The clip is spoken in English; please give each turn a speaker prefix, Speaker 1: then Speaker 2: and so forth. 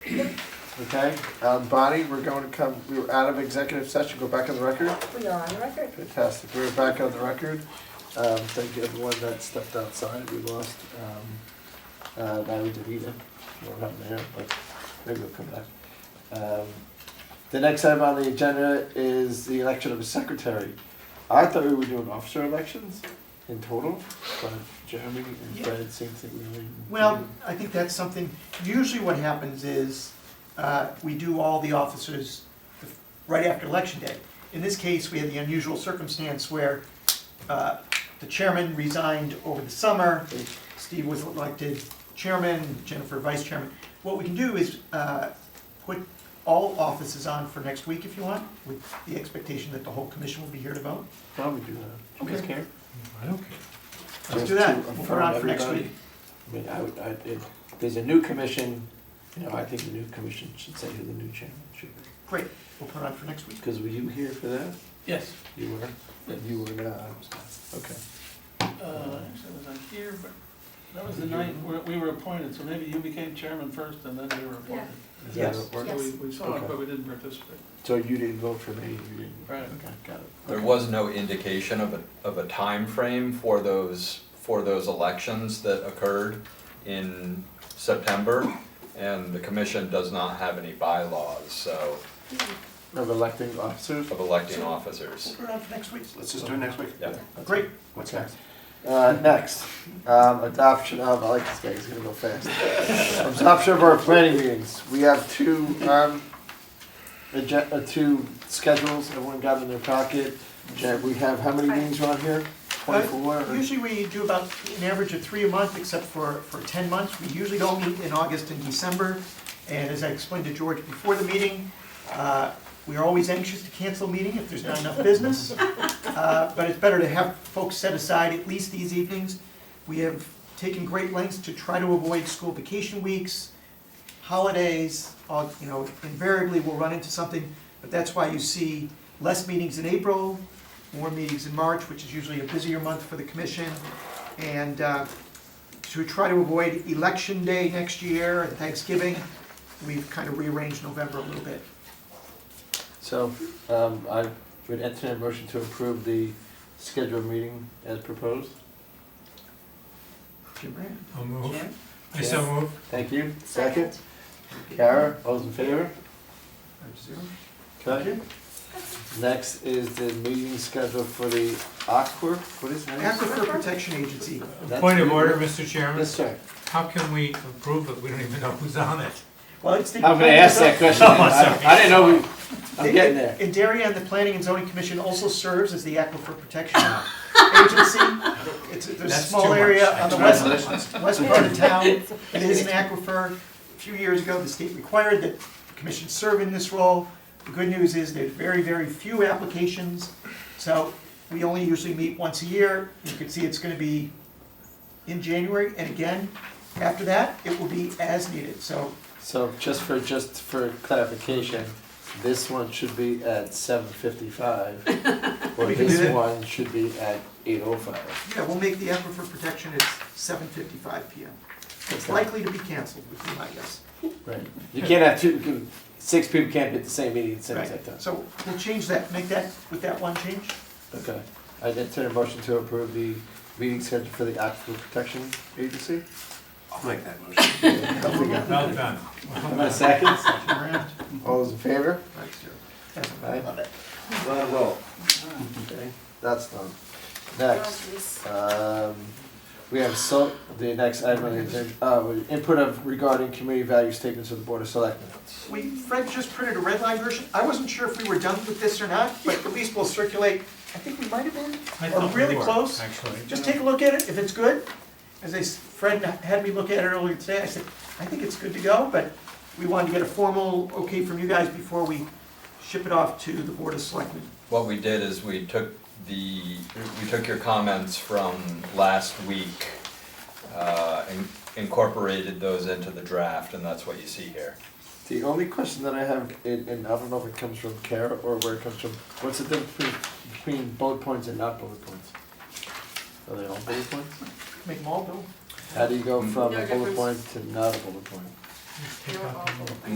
Speaker 1: okay? Um, Bonnie, we're going to come, we were out of executive session, go back on the record.
Speaker 2: We are on record.
Speaker 1: Fantastic, we're back on the record. Um, thank you everyone that stepped outside, we lost, um, uh, Larry DeVita, we're not there, but maybe we'll come back. Um, The next item on the agenda is the election of a secretary. I thought we were doing officer elections in total, but Jeremy and Fred seem to really.
Speaker 3: Well, I think that's something, usually what happens is, uh, we do all the officers right after election day. In this case, we had the unusual circumstance where uh, the chairman resigned over the summer, Steve was elected chairman, Jennifer vice chairman. What we can do is uh, put all offices on for next week if you want, with the expectation that the whole commission will be here to vote.
Speaker 1: Why don't we do that? Do you guys
Speaker 3: Okay.
Speaker 1: care?
Speaker 4: I don't care.
Speaker 3: Let's
Speaker 1: Just
Speaker 3: do
Speaker 1: to
Speaker 3: that, we'll put it on
Speaker 1: affirm
Speaker 3: for next
Speaker 1: everybody.
Speaker 3: week.
Speaker 1: I mean, I would, I, if there's a new commission, you know, I think the new commission should say who the new chairman should be.
Speaker 3: Great, we'll put it on for next week.
Speaker 1: Because were you here for that?
Speaker 5: Yes,
Speaker 1: You were? And you were not, I was not. Okay.
Speaker 5: uh, actually, was I here, but that was the night where we were appointed, so maybe you became chairman first and then we were appointed.
Speaker 1: Is that
Speaker 3: Yes.
Speaker 1: how it works?
Speaker 5: So we, we saw it,
Speaker 1: Okay.
Speaker 5: but we didn't participate.
Speaker 1: So you didn't vote for me, you didn't?
Speaker 5: Right.
Speaker 1: Okay, got it.
Speaker 6: There was no indication of a, of a timeframe for those, for those elections that occurred in September, and the commission does not have any bylaws, so,
Speaker 1: Of electing officers?
Speaker 6: of electing officers.
Speaker 3: We'll put it on for next week.
Speaker 7: Let's just do it next week.
Speaker 6: Yeah.
Speaker 3: Great, what's next?
Speaker 1: Uh, next, um, adoption of, I like this guy, he's gonna go fast. Adoption of our planning meetings. We have two, um, agen- uh, two schedules, everyone got in their pocket. Jen, we have, how many meetings are on here? Twenty-four?
Speaker 3: Uh, Usually we do about an average of three a month, except for, for ten months. We usually don't meet in August and December. And as I explained to George before the meeting, uh, we are always anxious to cancel a meeting if there's not enough business. Uh, But it's better to have folks set aside at least these evenings. We have taken great lengths to try to avoid school vacation weeks, holidays, all- you know, invariably we'll run into something. But that's why you see less meetings in April, more meetings in March, which is usually a busier month for the commission. And uh, to try to avoid election day next year and Thanksgiving, we've kind of rearranged November a little bit.
Speaker 1: So, um, I would entertain a motion to approve the scheduled meeting as proposed.
Speaker 3: Jim Moran?
Speaker 4: I'll move.
Speaker 3: Jan?
Speaker 4: I so move.
Speaker 1: Thank you. Second. Kara, all those in favor?
Speaker 3: Five to zero.
Speaker 1: Okay. Next is the meeting schedule for the Aqua, what is that?
Speaker 3: Aquifer Protection Agency.
Speaker 1: That's
Speaker 4: Point of
Speaker 1: good.
Speaker 4: order, Mr. Chairman.
Speaker 1: Yes, sir.
Speaker 4: How can we approve it? We don't even know who's on it.
Speaker 3: Well, it's the.
Speaker 1: I'm gonna ask that question. I I didn't know, we- I'm getting there.
Speaker 3: And Darien, the Planning and Zoning Commission also serves as the Aquifer Protection Agency. It's, there's a
Speaker 4: That's too
Speaker 3: small
Speaker 4: much.
Speaker 3: area on the west, west part of town, it is an aquifer. A few years ago, the state required that the commission serve in this role. The good news is there's very, very few applications, so we only usually meet once a year. You can see it's gonna be in January, and again, after that, it will be as needed, so
Speaker 1: So just for, just for clarification, this one should be at seven fifty-five. Or
Speaker 3: We can do
Speaker 1: this
Speaker 3: that.
Speaker 1: one should be at eight oh five.
Speaker 3: yeah, we'll make the aquifer protection at seven fifty-five PM. It's likely to be canceled, would be my guess.
Speaker 1: Right. You can't have two, you can- six people can't be at the same meeting at the same exact time.
Speaker 3: Right. So we'll change that, make that, with that one change?
Speaker 1: Okay. I entertain a motion to approve the meeting schedule for the Aquifer Protection Agency.
Speaker 7: I'll make that motion.
Speaker 4: Well done.
Speaker 1: Am I second?
Speaker 3: Around.
Speaker 1: All those in favor?
Speaker 3: Right, zero. That's what I
Speaker 1: Aye.
Speaker 3: love it.
Speaker 1: Let it roll. Okay, that's done. Next, um, we have so, the next item on the agenda, uh, input of regarding community value statements of the Board of Selectmen.
Speaker 3: We, Fred just printed a red line version, I wasn't sure if we were done with this or not, but at least we'll circulate, I think we might have been,
Speaker 4: I
Speaker 3: or
Speaker 4: thought we
Speaker 3: really
Speaker 4: were,
Speaker 3: close.
Speaker 4: Actually.
Speaker 3: Just take a look at it, if it's good, as I, s- Fred had me look at it earlier today, I said, I think it's good to go, but we wanted to get a formal okay from you guys before we ship it off to the Board of Selectmen.
Speaker 6: What we did is we took the, we took your comments from last week, uh, and incorporated those into the draft, and that's what you see here.
Speaker 1: The only question that I have, and, and I don't know if it comes from Kara or where it comes from, what's the difference between- between bullet points and not bullet points? Are they all bullet points?
Speaker 3: Make them all, Bill?
Speaker 1: How do you go from
Speaker 8: Mm. No
Speaker 1: a bullet
Speaker 8: difference.
Speaker 1: point to not a bullet point?
Speaker 4: Take out the-